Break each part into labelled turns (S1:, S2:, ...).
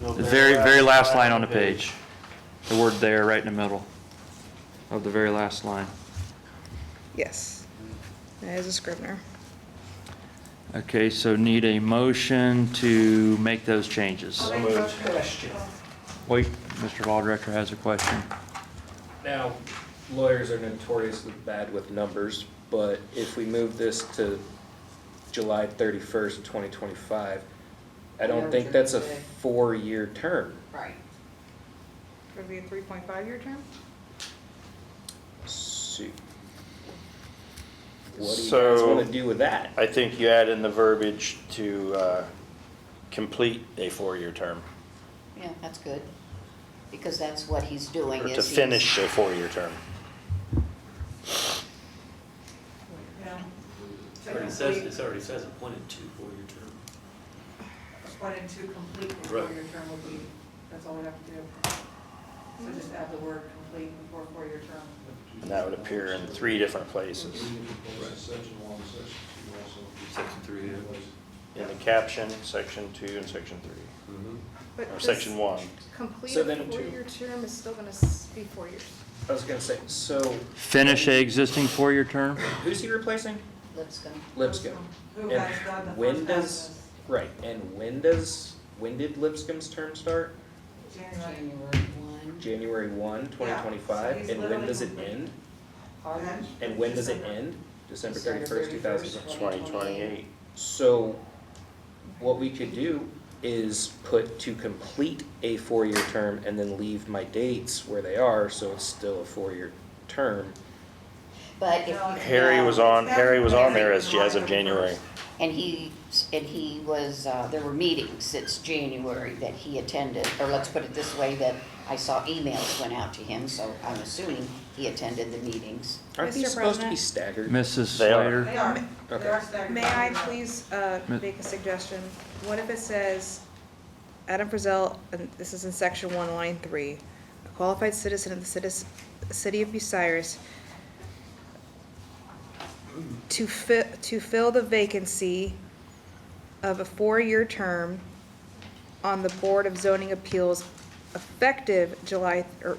S1: The very, very last line on the page. The word "there" right in the middle of the very last line.
S2: Yes. As a scrivener.
S1: Okay, so need a motion to make those changes.
S3: I have a question.
S1: Wait, Mr. Ball Director has a question.
S3: Now, lawyers are notoriously bad with numbers, but if we move this to July thirty-first, twenty twenty-five, I don't think that's a four-year term.
S4: Right.
S2: Would it be a 3.5-year term?
S3: So, What do you guys
S5: So-
S3: wanna do with that?
S5: I think you add in the verbiage to uh, complete a four-year term,
S4: Yeah, that's good, because that's what he's doing
S5: or
S4: is
S5: to
S4: he's-
S5: finish a four-year term.
S6: Already says, it already says appointed to four-year term.
S7: Appointed to complete before your term will be, that's all we have to do. So just add the word complete before four-year term.
S5: And that would appear in three different places,
S8: Section one, section two also.
S6: Section three, yeah.
S5: in the caption, section two, and section three,
S2: But
S5: or
S2: this
S5: section one.
S2: Complete
S3: So
S2: a
S3: then to-
S2: four-year term is still gonna s- be four years.
S3: I was gonna say, so
S1: Finish a existing four-year term?
S3: who's he replacing?
S4: Lipscomb.
S3: Lipscomb.
S7: Who
S3: And
S7: has done the
S3: when
S7: first
S3: does-
S7: half
S3: Right, and when does, when did Lipscomb's term start?
S7: of this? January.
S4: January one.
S3: January one, twenty
S7: Yeah, so
S3: twenty-five,
S7: he's
S3: and when
S7: literally
S3: does it
S7: completed.
S3: end?
S4: Harvard.
S3: And when does it
S7: December.
S3: end? December
S4: December
S3: thirty-first, two thousand
S4: 31st.
S5: Twenty twenty-eight.
S3: So what we could do is put to complete a four-year term and then leave my dates where they are, so it's still a four-year term.
S4: But if
S7: No,
S4: you.
S5: Harry was on, Harry was on there as as of
S7: January.
S5: January.
S4: And he, and he was, uh, there were meetings since January that he attended, or let's put it this way, that I saw emails went out to him, so I'm assuming he attended the meetings.
S3: Aren't these
S2: Mr.
S3: supposed to be
S2: President?
S3: staggered?
S1: Mrs.
S5: They are.
S1: Slater?
S7: They are, they are
S3: Okay.
S7: staggered.
S2: May I please uh,
S1: Ma-
S2: make a suggestion? What if it says, Adam Frisell, and this is in section one, line three, a qualified citizen of the citis- city of Bucyrus to fi, to fill the vacancy of a four-year term on the Board of Zoning Appeals effective July, or,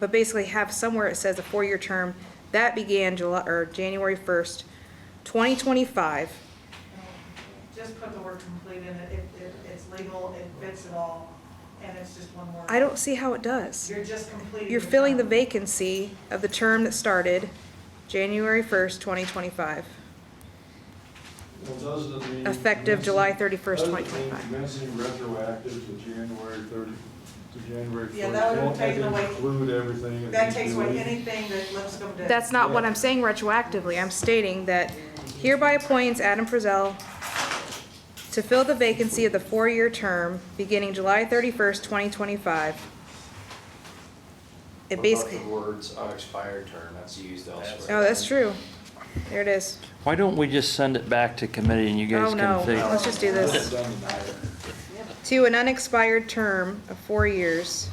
S2: but basically have somewhere it says a four-year term that began July, or January first, twenty twenty-five.
S7: Just put the word complete in it, it, it- it's legal, it fits it all, and it's just one word.
S2: I don't see how it does.
S7: You're just completing.
S2: You're
S7: your
S2: filling the
S7: term.
S2: vacancy of the term that started January first, twenty twenty-five.
S8: Well, doesn't it mean?
S2: Effective July 31st,
S8: doesn't it mean
S2: 2025.
S8: Commencing retroactive to January thirty, to January first.
S7: Yeah, that would have taken away-
S8: Include everything. that
S7: That
S8: you
S7: takes
S8: do.
S7: away anything that Lipscomb did.
S2: That's not what I'm saying retroactively. I'm stating that hereby appoints Adam Frisell to fill the vacancy of the four-year term beginning July thirty-first, twenty twenty-five. It basically,
S9: words unexpired term, that's used elsewhere.
S2: oh, that's true. There it is.
S1: Why don't we just send it back to committee and you guys
S2: Oh, no.
S1: can figure?
S2: Let's just do this.
S8: Doesn't matter.
S2: to an unexpired term of four years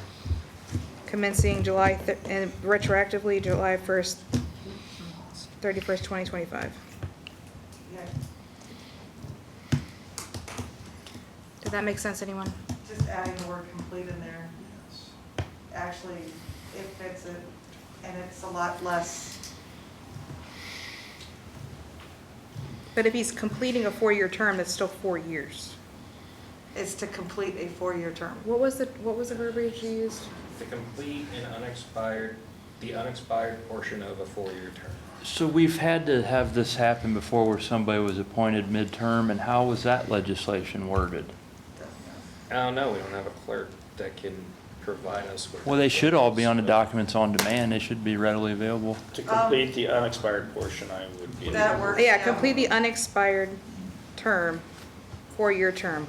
S2: commencing July, thir- and retroactively July 1st, 31st, 2025.
S7: Yeah,
S2: Does that make sense, anyone?
S7: Just adding the word complete in there. Actually, it fits it, and it's a lot less.
S2: But if he's completing a four-year term, that's still four years.
S7: It's to complete a four-year term.
S2: What was the, what was the verbiage you used?
S3: To complete an unexpired, the unexpired portion of a four-year term.
S1: So we've had to have this happen before where somebody was appointed midterm, and how was that legislation worded?
S3: I don't know, we don't have a clerk that can provide us with.
S1: Well, they should all be on the documents on demand. They should be readily available.
S5: To complete the unexpired portion, I would be.
S7: That works.
S2: Yeah, complete the unexpired term, four-year term.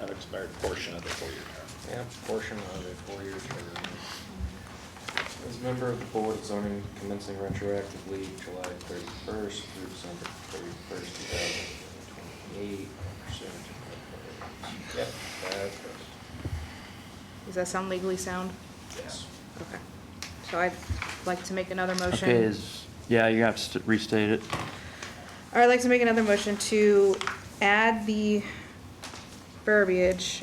S5: Unexpired portion of the four-year term.
S3: Yeah, portion of a four-year term. As a member of the Board of Zoning commencing retroactively July thirty-first through December thirty-first, two thousand twenty-eight. Yep, that's
S2: Does that sound legally sound?
S3: Yes.
S2: Okay. So I'd like to make another motion.
S1: Okay, is, yeah, you have to restate it.
S2: All right, I'd like to make another motion to add the verbiage